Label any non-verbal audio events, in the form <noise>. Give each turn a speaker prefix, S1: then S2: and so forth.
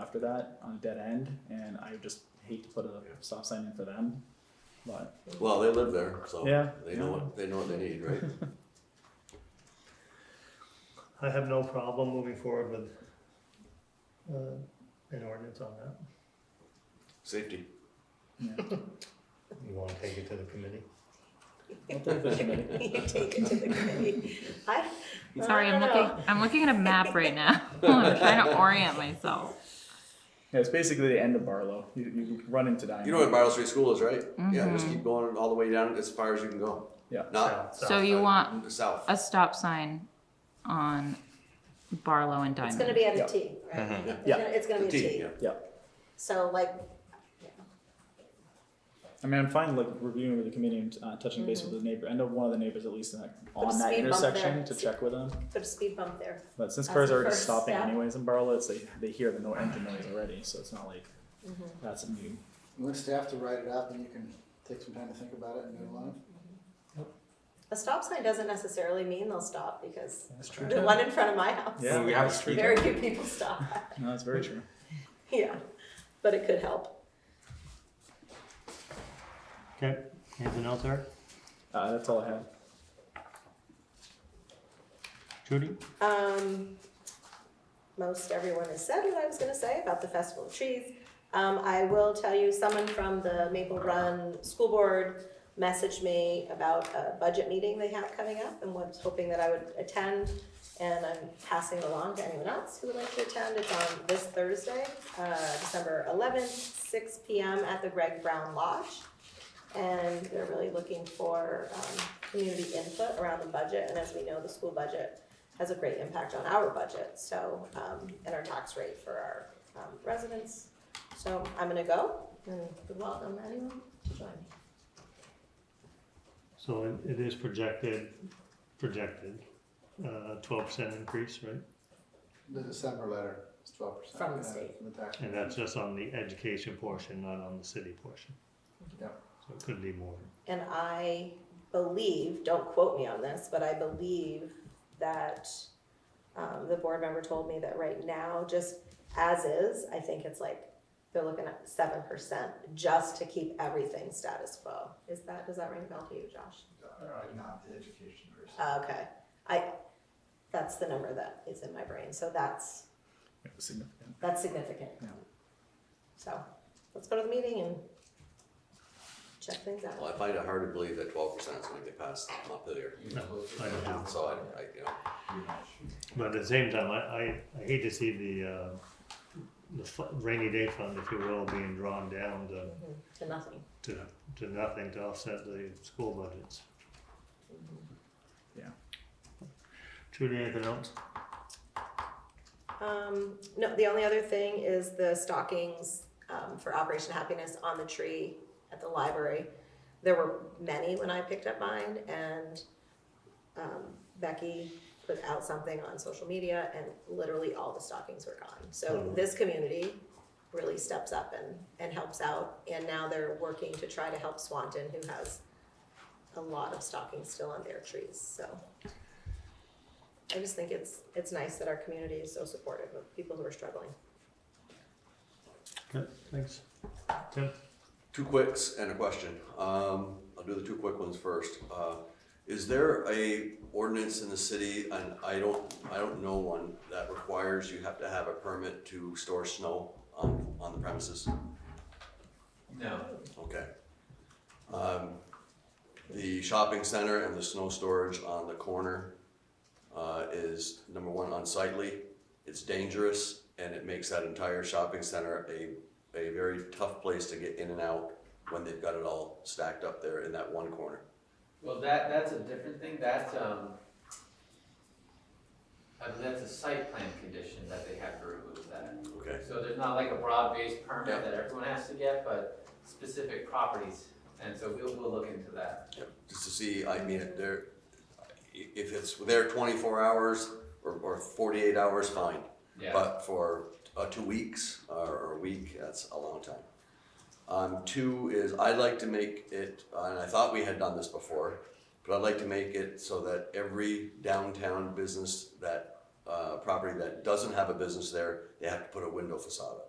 S1: after that on a dead end, and I just hate to put a stop sign in for them. But
S2: Well, they live there, so
S1: Yeah.
S2: they know what, they know what they
S1: <laughs>
S2: need, right?
S3: I have no problem moving forward with uh, an ordinance on that.
S2: Safety.
S1: yeah, <laughs>
S3: You want to take it to the committee?
S1: I'll take the committee.
S4: <laughs> You take it to the committee. I,
S5: Sorry, I'm
S4: I don't
S5: looking.
S4: know.
S5: I'm looking at a map right now. <laughs> I'm trying to orient myself.
S1: Yeah, it's basically the end of Barlow. You, you run into Diamond.
S2: You know what Barrow Street School is, right? Yeah,
S5: Mm-hmm.
S2: just keep going all the way down as far as you can go.
S1: Yeah.
S2: Not
S5: So you want
S2: the south.
S5: a stop sign on Barlow and
S4: It's gonna
S5: Diamond.
S4: be at
S1: Yeah.
S4: a T, right? It's
S1: Yeah.
S4: gonna- It's gonna
S2: The
S4: be a
S2: T,
S4: T.
S2: yeah.
S1: Yeah,
S4: So like,
S1: I mean, I'm fine like reviewing with the committee and uh, touching base with the neighbor. I know one of the neighbors at least in that,
S4: Mm-hmm. a
S1: on that
S4: speed bump there.
S1: intersection to check with them.
S4: put a speed bump there.
S1: But since
S4: That's
S1: cars
S4: the
S1: are already
S4: first
S1: stopping
S4: step.
S1: anyways in Barlow, it's like they hear the no engine noise already, so it's not like
S4: Mm-hmm.
S1: that's a new.
S6: Let staff to write it out, then you can take some time to think about it and move on.
S4: A stop sign doesn't necessarily mean they'll stop because
S1: That's true.
S4: the one in front of my house,
S1: Yeah,
S7: we have a street
S4: very few people stop. <laughs>
S1: No, that's very true.
S4: Yeah, but it could help.
S3: Okay, anything else, Eric?
S1: Uh, that's all I have.
S3: Judy?
S4: Um, most everyone has said what I was gonna say about the Festival of Trees. Um, I will tell you, someone from the Maple Run School Board messaged me about a budget meeting they have coming up and was hoping that I would attend. And I'm passing it along to anyone else who would like to attend. It's on this Thursday, uh, December eleventh, six P M at the Greg Brown Lodge. And they're really looking for, um, community input around the budget. And as we know, the school budget has a great impact on our budget, so, um, and our tax rate for our, um, residents. So I'm gonna go and would welcome anyone to join me.
S3: So it- it is projected, projected, uh, twelve percent increase, right?
S6: The December letter is twelve percent.
S4: From the state.
S6: From the tax.
S3: And that's just on the education portion, not on the city portion.
S6: Yeah.
S3: So it could be more.
S4: And I believe, don't quote me on this, but I believe that, um, the board member told me that right now, just as is, I think it's like, they're looking at seven percent just to keep everything status quo. Is that, does that ring a bell to you, Josh?
S6: I'm not the education person.
S4: Uh, Okay, I, that's the number that is in my brain, so that's,
S1: It was significant.
S4: that's significant.
S1: Yeah.
S4: So, let's go to the meeting and check things
S2: Well,
S4: out.
S2: I find it hard to believe that twelve percent is gonna get passed Montpelier.
S3: No, I don't know.
S2: So I, I, you know,
S3: But at the same time, I, I, I hate to see the, uh, the fu- rainy day fund, if you will, being drawn down to,
S4: To nothing.
S3: to, to nothing to offset the school budgets.
S1: Yeah.
S3: Judy, anything else?
S4: Um, no, the only other thing is the stockings, um, for Operation Happiness on the tree at the library. There were many when I picked up mine and, um, Becky put out something on social media and literally all the stockings were gone. So
S3: Oh.
S4: this community really steps up and, and helps out. And now they're working to try to help Swanton, who has a lot of stockings still on their trees, so. I just think it's, it's nice that our community is so supportive of people who are struggling.
S3: Okay, thanks. Tim?
S2: two quicks and a question. Um, I'll do the two quick ones first. Uh, is there a ordinance in the city, and I don't, I don't know one, that requires you have to have a permit to store snow on, on the premises?
S7: No.
S2: Okay. Um, the shopping center and the snow storage on the corner, uh, is number one unsightly. It's dangerous and it makes that entire shopping center a, a very tough place to get in and out when they've got it all stacked up there in that one corner.
S7: Well, that, that's a different thing, that's, um, I mean, that's a site plan condition that they have to remove that.
S2: Okay.
S7: So there's not like a broad-based
S2: Yeah.
S7: permit that everyone has to get, but specific properties, and so we'll, we'll look into that.
S2: Yep, Just to see, I mean, if they're, i- if it's there twenty-four hours or, or forty-eight hours, fine.
S7: Yeah,
S2: But for uh, two weeks or, or a week, that's a long time. Um, two is I'd like to make it, and I thought we had done this before, but I'd like to make it so that every downtown business that, uh, property that doesn't have a business there, they have to put a window facade up.